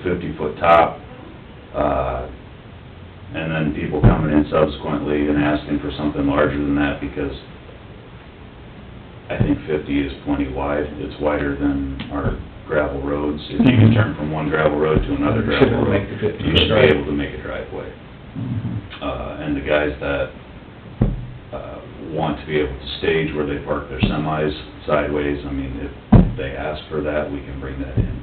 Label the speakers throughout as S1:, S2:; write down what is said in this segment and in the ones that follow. S1: fifty-foot top, uh, and then people coming in subsequently and asking for something larger than that, because I think fifty is plenty wide, it's wider than our gravel roads, if you can turn from one gravel road to another
S2: You should
S1: gravel
S2: be able to
S1: road,
S2: make the 50
S1: you should be
S2: drive.
S1: able to make a driveway.
S2: Mm-hmm.
S1: Uh, and the guys that, uh, want to be able to stage where they park their semis sideways, I mean, if they ask for that, we can bring that in.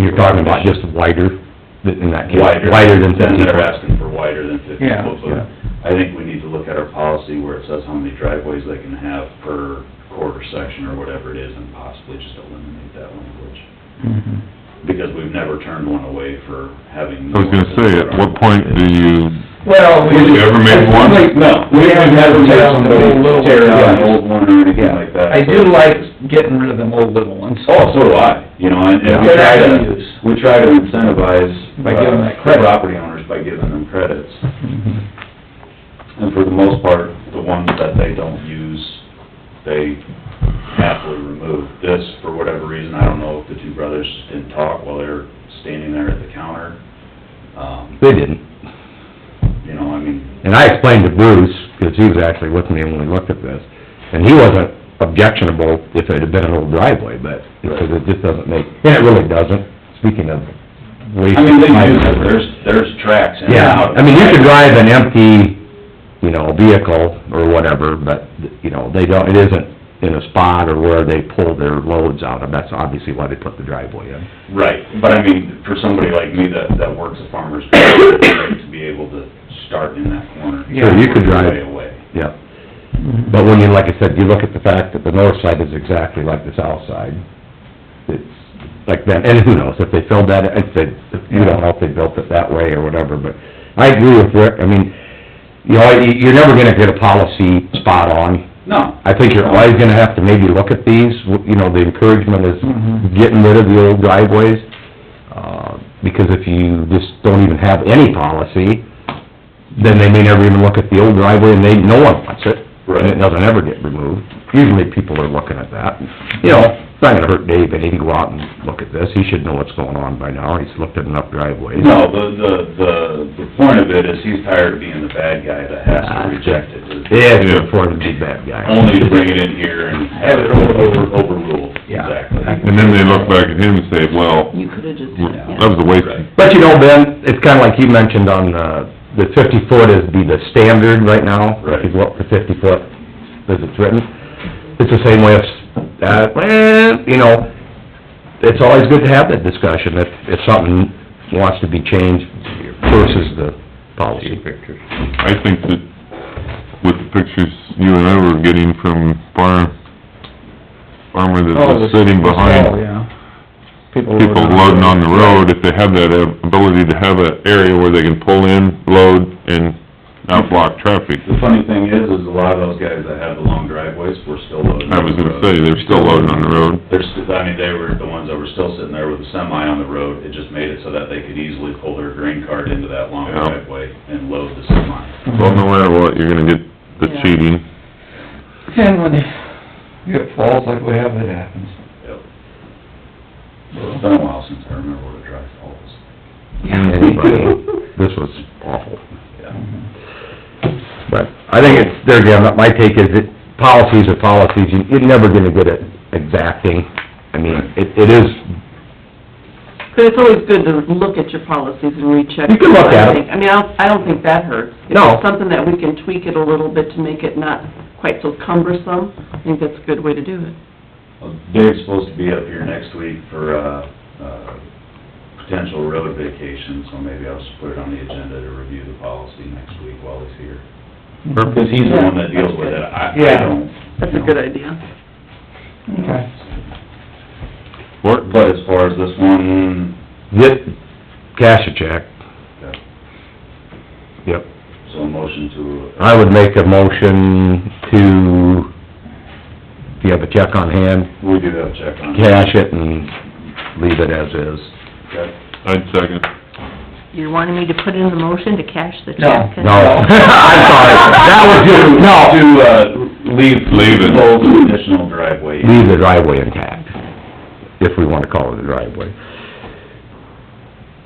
S3: You're talking about just wider th- in that case?
S1: wider.
S3: than
S1: Then
S3: fifty
S1: they're
S3: foot?
S1: asking for wider than fifty
S2: Yeah,
S1: foot, but I think we need to look at our policy where it says how many driveways they can have per quarter section or whatever it is, and possibly just eliminate that language. Because we've never turned one away for having.
S4: I was gonna say, at what point do you,
S2: Well, we.
S4: Have you ever made one?
S2: Like,
S1: No, we haven't had
S2: Tear down the old
S1: somebody
S2: little
S1: tear down an
S2: ones.
S1: old one or anything
S2: Yeah.
S1: like that.
S2: I
S1: so
S2: do
S1: it's
S2: like
S1: just-
S2: getting rid of them old little ones.
S1: Oh, so do I, you know, and, and we
S2: They're
S1: try
S2: not
S1: to,
S2: gonna use.
S1: we try to incentivize.
S2: By giving
S1: uh,
S2: that credit.
S1: Property owners by giving them credits.
S4: Mm-hmm.
S1: And for the most part, the ones that they don't use, they happily remove. This, for whatever reason, I don't know if the two brothers just didn't talk while they were standing there at the counter. Um,
S3: They didn't.
S1: you know, I mean,
S3: And I explained to Bruce, because he was actually with me when we looked at this, and he wasn't objectionable if it had been an old driveway, but, because it just doesn't make, and it really doesn't, speaking of waste.
S1: I mean, they
S3: of
S1: do,
S3: time.
S1: there's, there's tracks in and
S3: Yeah,
S1: out.
S3: I mean, you can drive an empty, you know, vehicle or whatever, but, you know, they don't, it isn't in a spot or where they pull their loads out of, that's obviously why they put the driveway in.
S1: Right, but I mean, for somebody like me that, that works a farmer's market, it's great to be able to start in that corner.
S3: Sure, you could drive.
S1: Way away.
S3: Yeah, but when you, like I said, you look at the fact that the north side is exactly like the south side, it's like that, and who knows, if they filled that, if they, we don't know if they built it that way or whatever, but I agree with Rick, I mean, you know, you- you're never gonna get a policy spot on,
S1: No,
S3: I think you're always gonna have to maybe look at these, you know, the encouragement is
S2: Mhm.
S3: getting rid of the old driveways, uh, because if you just don't even have any policy, then they may never even look at the old driveway, and they, no one wants it. And
S1: Right.
S3: it doesn't ever get removed. Usually people are looking at that. You know, it's not gonna hurt Dave any to go out and look at this, he should know what's going on by now, he's looked at enough driveways.
S1: No, the, the, the, the point of it is he's tired of being the bad guy that has to reject it.
S3: Yeah, he's a former big bad guy.
S1: Only to bring it in here and have it over, overruled,
S3: Yeah.
S1: exactly.
S4: and then they look back at him and say, well,
S5: You could've just,
S4: that was a waste.
S1: Right.
S3: But you know, Ben, it's kinda like you mentioned on, uh, the fifty foot is be the standard right now.
S1: Right.
S3: If you go up to fifty foot, as it's written, it's the same way as, uh, well, you know, it's always good to have that discussion, if, if something wants to be changed versus the policy. Pictures.
S4: I think that with the pictures you and I were getting from farm, farmer that was sitting
S2: Oh,
S4: behind
S2: yeah. People
S4: people loading on the road, if they have that ability to have an area where they can pull in, load, and not block traffic.
S1: The funny thing is, is a lot of those guys that have the long driveways were still loading.
S4: I was gonna say, they're still loading on the road.
S1: They're, st- I mean, they were the ones that were still sitting there with a semi on the road. It just made it so that they could easily pull their grain cart into that long
S4: Yeah.
S1: driveway and load the semi.
S2: Mm-hmm.
S4: Well, no matter what, you're gonna get the
S5: Yeah.
S4: cheating.
S2: And when it falls like we have, it happens.
S1: Yep. It's been a while since I remember what a dry fall was.
S3: Anybody, this was awful.
S1: Yeah.
S3: But I think it's, there again, my take is that policies are policies, You- you're never gonna get it exacting. I mean, it, it is
S5: but it's always good to look at your policies and recheck.
S3: You can look at 'em.
S5: them. I mean, I don't, I don't think that hurts. If
S3: No.
S5: it's Something that we can tweak it a little bit to make it not quite so cumbersome, I think that's a good way to do it.
S1: Well, Dave's Uh, supposed to be up here next week for, uh, uh, potential road vacation, so maybe I'll just put it on the agenda to review the policy next week while he's here. Because he's the one that deals with it, I, I
S2: Yeah.
S1: don't.
S5: That's a good idea.
S2: Okay.
S1: But- But as far as this one,
S3: Yep, cash a check,
S1: yeah,
S3: yep.
S1: so a motion to,
S3: I would make a motion to, if you have a check on hand,
S1: we do have a check on it.
S3: cash it and leave it as is.
S1: Okay.
S4: I'd second.
S6: You're wanting me to put in the motion to cash the
S2: No.
S6: check?
S3: No, I'm sorry, that was
S1: To-
S3: just,
S1: To,
S3: no,
S1: uh, leave, leave
S4: Leave it.
S1: the additional driveway.
S3: leave the driveway intact, if we wanna call it a driveway.